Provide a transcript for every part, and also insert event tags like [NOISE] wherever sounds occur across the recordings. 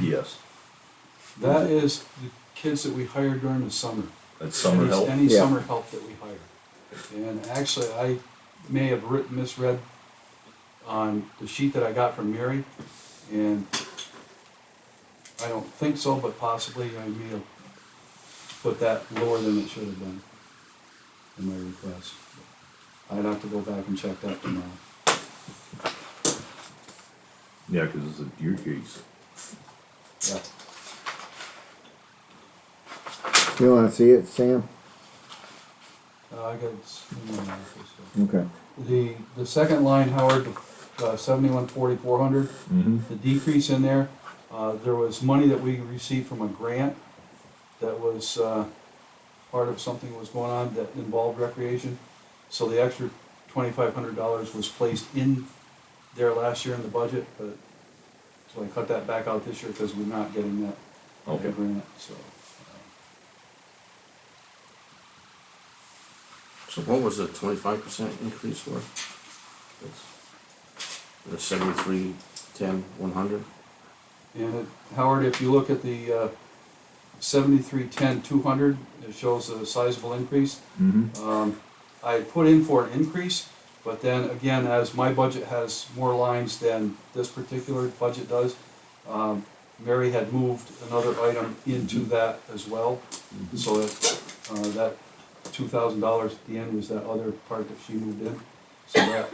Yes, That is the kids that we hired during the summer. that's summer Any- help. Any Yeah. summer help that we hired. And actually, I may have writ misread on the sheet that I got from Mary, and I don't think so, but possibly I may have put that lower than it should have been in my request. I'd have to go back and check that tomorrow. Yeah, because it's a deer case. Yeah. You wanna see it, Sam? Uh, I got it's in my office, so. Okay. The, the second line, Howard, uh, seventy-one forty, four hundred, Mm-hmm. the decrease in there, uh, there was money that we received from a grant that was, uh, part of something that was going on that involved recreation. So the extra twenty-five hundred dollars was placed in there last year in the budget, but, so I cut that back out this year because we're not getting that, Okay. that grant, so. uh, So what was the twenty-five percent increase for? The seventy-three, ten, one hundred? And it, Howard, if you look at the, uh, seventy-three, ten, two hundred, it shows a sizable increase. Mm-hmm. Um, I put in for an increase, but then again, as my budget has more lines than this particular budget does, um, Mary had moved another item into that as well. So that, uh, that two thousand dollars at the end was that other part that she moved in. So that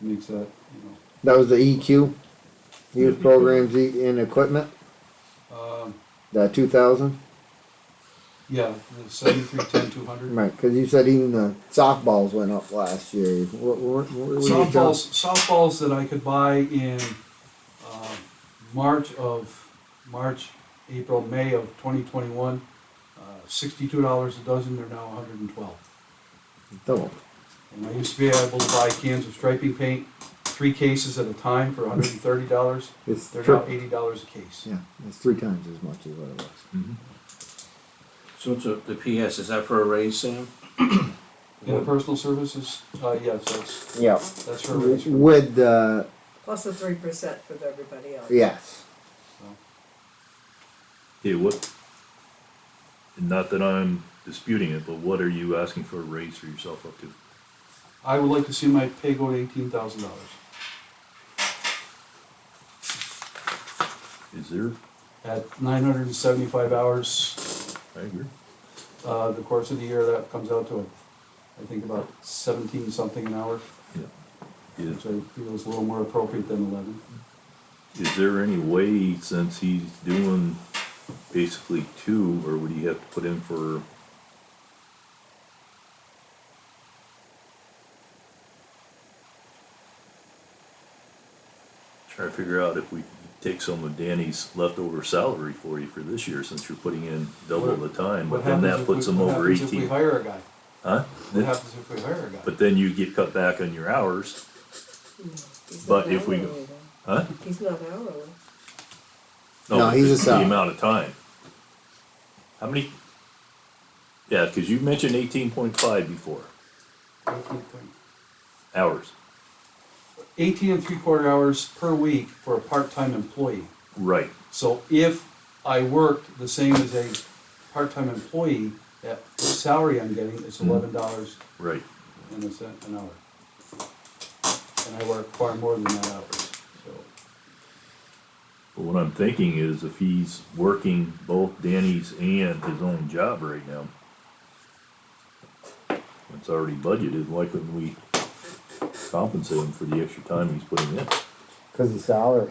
makes that, you That was the E EQ, use programs E- and equipment, know, um, that two thousand? yeah, the seventy-three, ten, two hundred. Right, cause you said even the softballs went up last year. What, what, what were you talking- softballs, softballs that I could buy in uh, March of March, April, May of 2021. Uh, Sixty-two dollars a dozen. They're now 112. Double. And I used to be able to buy cans of striping paint, three cases at a time for 130 dollars. It's They're E now tri- 80 dollars a case. yeah, it's three times as much as what it was. Mm-hmm. So it's a, the PS, is that for a raise, Sam? In the personal services, uh, yes, that's Yeah. that's her raise. With the, Plus the three percent for everybody else. yes, Hey, what? And not that I'm disputing it, but what are you asking for a raise for yourself up to? I would like to see my pay go to 18,000 dollars. Is there? At 975 hours, I agree. uh, the course of the year, that comes out to, I think, about seventeen something an hour, Yeah. Is, which I feel is a little more appropriate than eleven. is there any way, since he's doing basically two, or would he have to put in for? Trying to figure out if we could take some of Danny's leftover salary for you for this year, since you're putting in double the time, What but then happens that if puts we- him what over happens If we eighteen. hire a guy, Huh? what happens if we hire a guy? But then you get cut back on your hours, He's But not if we- hourly, though. huh? He's not hourly. No, he's a it's sub. The amount of time. How many? Yeah, because you mentioned eighteen point five before, hours, Eighteen and three quarter hours per week for a part-time employee. right, So if I worked the same as a part-time employee, that salary I'm getting is Mhm. eleven dollars right. and a cent an hour. And I work far more than that hours, so. But what I'm thinking is if he's working both Danny's and his own job right now, it's already budgeted, why couldn't we compensate him for the extra time he's putting in? cause the salary.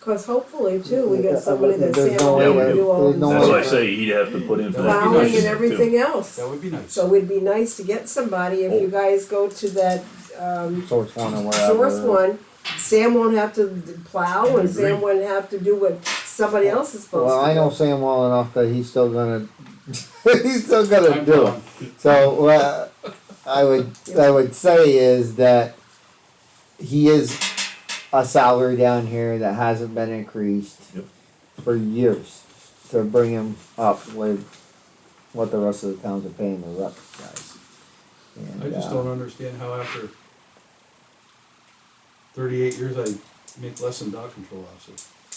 Cause hopefully too, we Yeah, got somebody that's there's no able way to that- do all there's no That's way why I this that- say he'd have to put in for that plowing position and too. everything else. That would be nice. So it'd be nice to get somebody, if Oh. you guys go to that, um, Source one or Uh, wherever. source one, Sam won't have to plow and Agree. Sam wouldn't have to do what somebody else is supposed to do. Well, I know Sam well enough that he's still gonna, [LAUGHS] he's still gonna I'm do it. done. So what I would I would say is that he is a salary down here that hasn't been increased Yep. for years to bring him up with what the rest of the towns are paying the rep guys. And, I just uh, don't understand how after thirty-eight years I make less than dog control officer.